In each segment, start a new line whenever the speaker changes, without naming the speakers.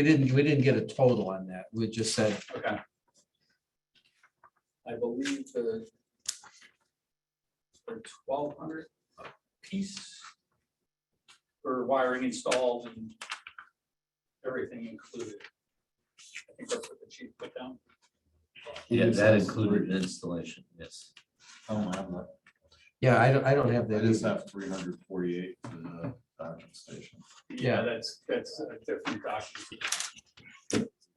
We didn't, we didn't get a total on that. We just said,
Okay. I believe the for twelve hundred a piece for wiring installed and everything included. I think that's what the chief put down.
Yeah, that included installation, yes.
I don't have that.
yeah, I don't, I don't have
I
that.
just
either.
have three hundred forty-eight for the docking station.
Yeah.
That's, that's a different document.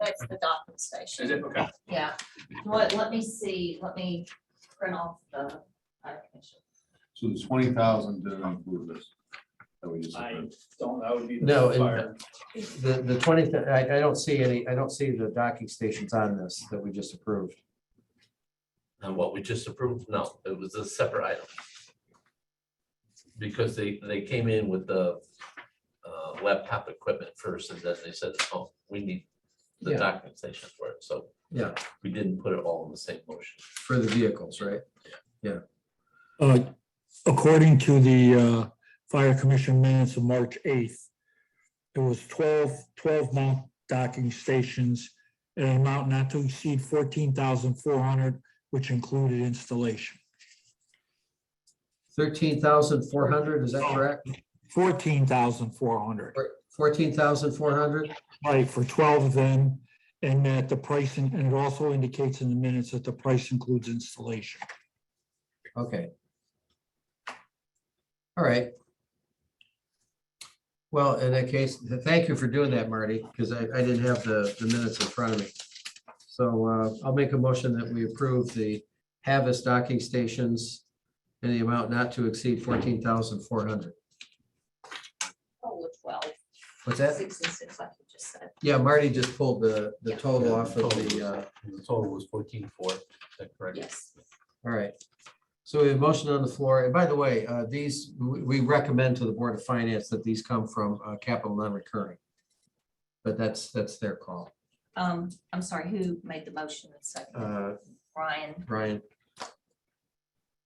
That's the docking
Is
station.
it? Okay.
Yeah. Let, let me see, let me print off the. fire commission.
So the twenty thousand didn't include this. That we just.
I
approved.
don't, that would be. the
No, and-
fire.
The, the twenty, I, I don't see any, I don't see the docking stations on this that we just approved.
And what we just approved, no, it was a separate item. Because they, they came in with the uh, laptop equipment first, and then they said, oh, we need the
Yeah.
documentation for it, so.
Yeah.
We didn't put it all in the same motion.
For the vehicles, right?
Uh, According to the uh, Fire Commission minutes of March 8th, there was 12, 12 mount docking stations at an amount not to exceed 14,400, which included installation.
Thirteen thousand four hundred, is that correct?
14,400,
Fourteen thousand four hundred?
right, for 12 of them. And that the pricing, and it also indicates in the minutes that the price includes installation.
Okay. All right. Well, in that case, th- thank you for doing that, Marty, because I, I didn't have the, the minutes in front of me. So uh, I'll make a motion that we approve the Havas docking stations in the amount not to exceed fourteen thousand four hundred.
Oh, with twelve,
What's that?
six and six, like you just said.
Yeah, Marty just pulled the, the
Yeah.
total off of the, uh,
The total was fourteen four, is that correct?
Yes.
All right. So we have a motion on the floor. And by the way, uh, these, we, we recommend to the Board of Finance that these come from, uh, capital non-recurring. But that's, that's their call.
Um, I'm sorry, who made the motion and second?
Uh,
Brian
Brian,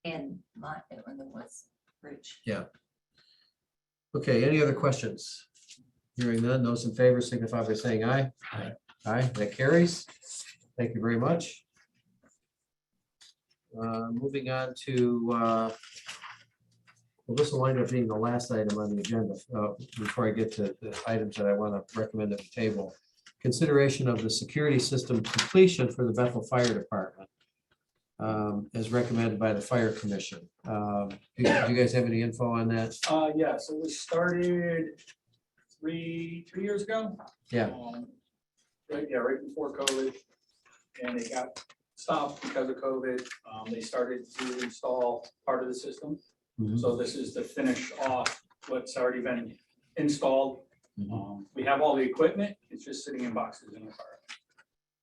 and Mike, and then was Rich.
okay, any other questions? Hearing none, those in favor signify by saying aye.
Aye.
Aye, that carries. Thank you very much. Uh, moving on to, uh, well, this will wind up being the last item on the agenda, uh, before I get to the items that I want to recommend at the table. Consideration of the security system completion for the Bethel Fire Department. um, as recommended by the Fire Commission. Um, do do you guys have any info on that?
Uh, yeah, so we started three, two years ago.
Yeah.
Um, Right, yeah, right before COVID. And it got stopped because of COVID. Um, they started to install part of the system.
Mhm.
So this is to finish off what's already been installed.
Mm-hmm.
Um, we have all the equipment. It's just sitting in boxes in the car.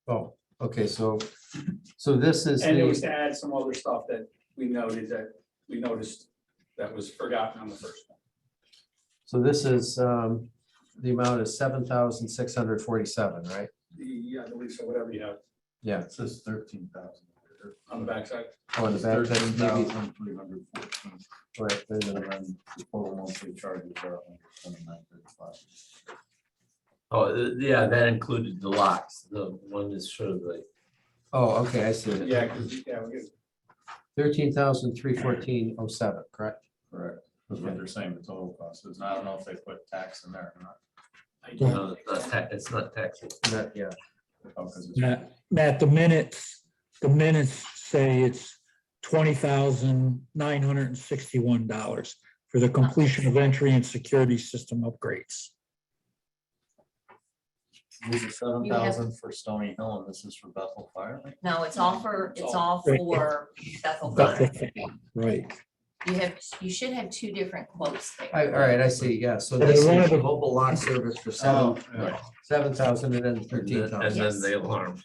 Oh, okay, so, so this is
And it was
the,
to add some other stuff that we noted that we noticed that was forgotten on the first one.
so this is, um, the amount is seven thousand six hundred forty-seven, right?
The, I believe so, whatever you have
Yeah,
It says thirteen thousand.
on the backside.
on Oh, the back, that's maybe,
three hundred fourteen.
right, there's
And
a-
then the total monthly charges are 129.35.
Oh, uh, yeah, that included the locks, the one is sort of like,
oh, okay, I see it,
Yeah, 'cause, yeah, we get
thirteen thousand three fourteen oh seven, correct?
Correct. That's what they're saying the total cost is. And I don't know if they put tax in there or not.
you know, it's not ta- it's not taxable.
That- Yeah,
Oh, 'cause it's-
Matt, Matt, the minutes, the minutes say it's twenty thousand nine hundred and sixty-one dollars for the completion of entry and security system upgrades.
This is seven
You have-
thousand for Stony Hill and this is for Bethel Fire. Lake?
No, it's all for, it's all
Right.
for Bethel
That's
Fire.
the thing, Right.
You have, you should have two different quotes there.
I, all right, I see, yeah, so
Yeah,
this is
one of the-
mobile lock service for
Oh,
seven,
yeah.
seven thousand and then
And
thirteen
then- and
thousand,
then the alarm.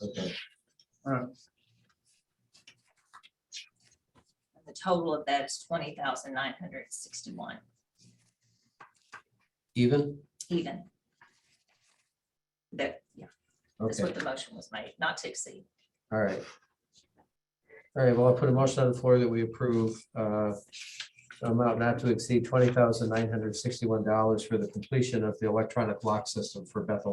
okay,
The total of that is twenty thousand nine hundred sixty-one
even,
even. That, yeah, that's
okay.
what the motion was made, not to exceed.
All right. All right, well, I'll put a motion on the floor that we approve uh, an amount not to exceed twenty thousand nine hundred sixty-one dollars for the completion of the electronic lock system for Bethel